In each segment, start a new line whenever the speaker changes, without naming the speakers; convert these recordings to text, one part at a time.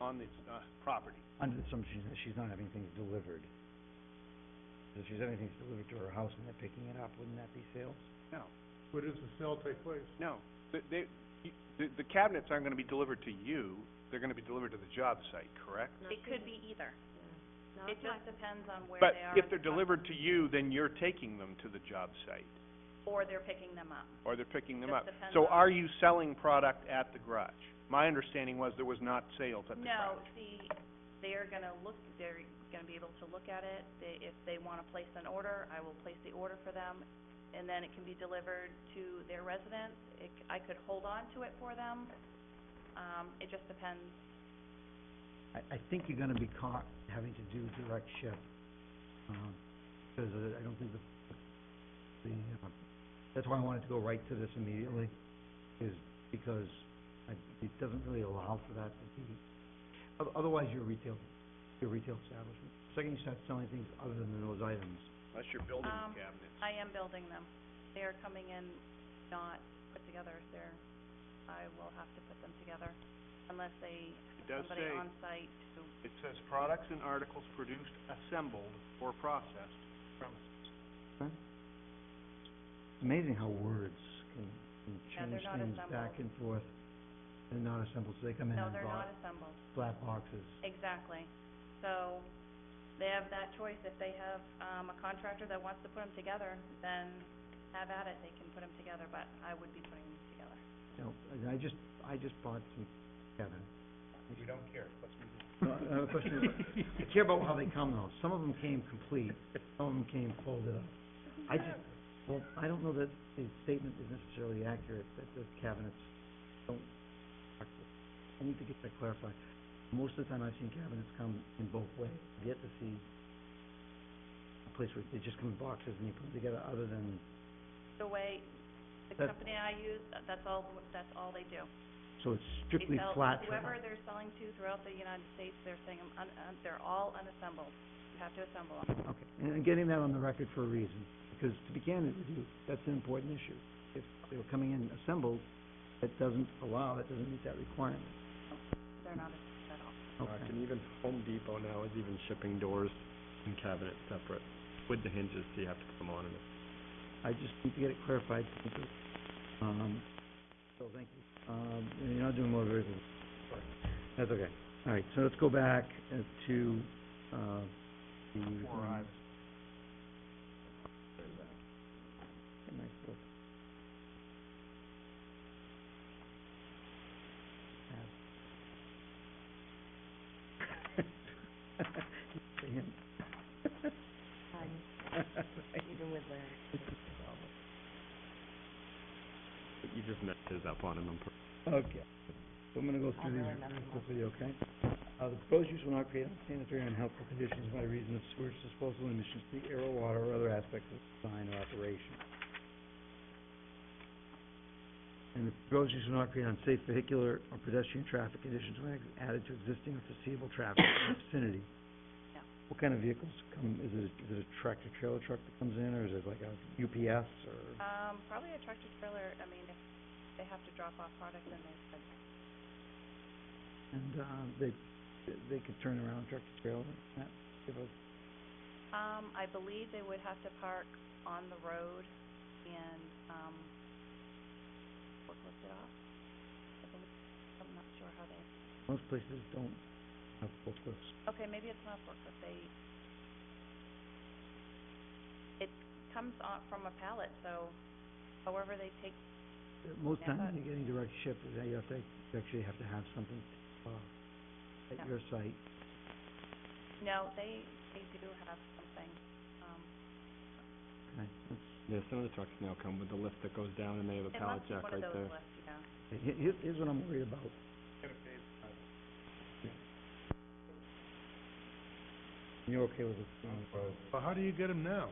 on this, uh, property.
under the assumption that she's not having things delivered. If she's having things delivered to her house and they're picking it up, wouldn't that be sales?
No,
Where does the sale take place?
no. The, they, you- the, the cabinets aren't gonna be delivered to you, they're gonna be delivered to the job site, correct?
It could be either. It just depends on where
But
they are.
if
in
they're
the pro-
delivered to you, then you're taking them to the job site,
Or they're picking them up.
or they're picking them
Just
up.
depends
So
on-
are you selling product at the garage? My understanding was there was not sales at the
No,
garage.
see, they're gonna look, they're gonna be able to look at it. They, if they wanna place an order, I will place the order for them, and then it can be delivered to their residence. It, c- I could hold on to it for them. Um, it just depends.
I, I think you're gonna be caught having to do direct ship, um, because uh, I don't think the, the, uh, that's why I wanted to go right to this immediately, is because I, it doesn't really allow for that to be, oth- otherwise you're retail, you're a retail establishment. Second, you start selling things other than those items.
Unless you're building
Um,
the cabinets.
I am building them. They are coming in not put together. They're, I will have to put them together unless they,
It does
have somebody
say-
on site who
It says products and articles produced, assembled, or processed from
It's amazing how words can, can
Yeah, they're
change
not
things back
assembled.
and forth. They're not assembled, so they come in
No,
in
they're
bo-
not assembled,
flat boxes.
exactly. So, they have that choice, if they have, um, a contractor that wants to put them together, then have at it, they can put them together, but I would be putting them together.
You know, and I just, I just bought some, Kevin.
We don't care, let's
No, I have a question. I care about how they come though. Some of them came complete, some of them came folded up. I just, well, I don't know that the statement is necessarily accurate, that the cabinets don't, I need to get that clarified. Most of the time I've seen cabinets come in both ways. I've yet to see a place where they just come in boxes and you put them together other than
The way, the
That-
company I use, that- that's all, that's all they do.
So it's
They
strictly
sell-
flat
Whoever they're selling to throughout the United States, they're saying, um, un, un, they're all unassembled, you have to assemble them.
Okay, and I'm getting that on the record for a reason, because to be candid with you, that's an important issue. If they were coming in assembled, that doesn't allow, that doesn't meet that requirement.
They're not assembled at all.
Okay.
And even Home Depot now is even shipping doors and cabinets separate with the hinges, so you have to put them on and
I just need to get it clarified, because, um, so thank you. Um, you're not doing more very good. That's okay. All right, so let's go back uh, to, uh, the.
Four eyes.
Okay, nice look. See him.
you just messed his up on him on purpose.
Okay. So I'm gonna go through these very quickly, okay? Uh, the proposed use will not create unsanitary or unhealthful conditions by reason of sewage disposal emissions to the air or water or other aspects of design or operation. And the proposed use will not create unsafe vehicular or pedestrian traffic conditions when added to existing or foreseeable traffic in the vicinity.
No.
What kind of vehicles come, is it, is it a tractor trailer truck that comes in, or is it like a UPS or?
Um, probably a tractor trailer, I mean, if they have to drop off product, then they could
And, uh, they, they could turn around tractor trailer, that, give a
Um, I believe they would have to park on the road and, um, forklift it off. I believe, I'm not sure how they,
Most places don't have forklifts.
okay, maybe it's not forklift, they, it comes on from a pallet, so however they take,
Uh, Most
Yeah,
times
but-
when you're getting direct ship, is that you have to, you actually have to have something, uh, at
Yeah.
your site.
no, they, they do have something, um,
Okay, that's-
Yeah, some of the trucks now come with the lift that goes down and they have a
it
pallet
must be
jack
one
right
of those
there.
lifts, you know.
he- he- Here's, here's what I'm worried about. You're okay with it, uh,
Well, how do you get them now?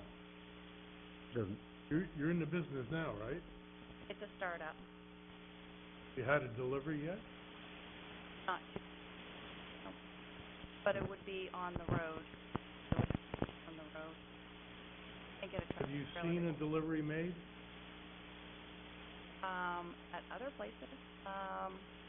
doesn't,
You're, you're in the business now, right?
It's a startup,
You had a delivery yet?
not, no. but it would be on the road, so it's on the road. I get a tractor
Have you
trailer
seen
that
a delivery made?
um, at other places. Um,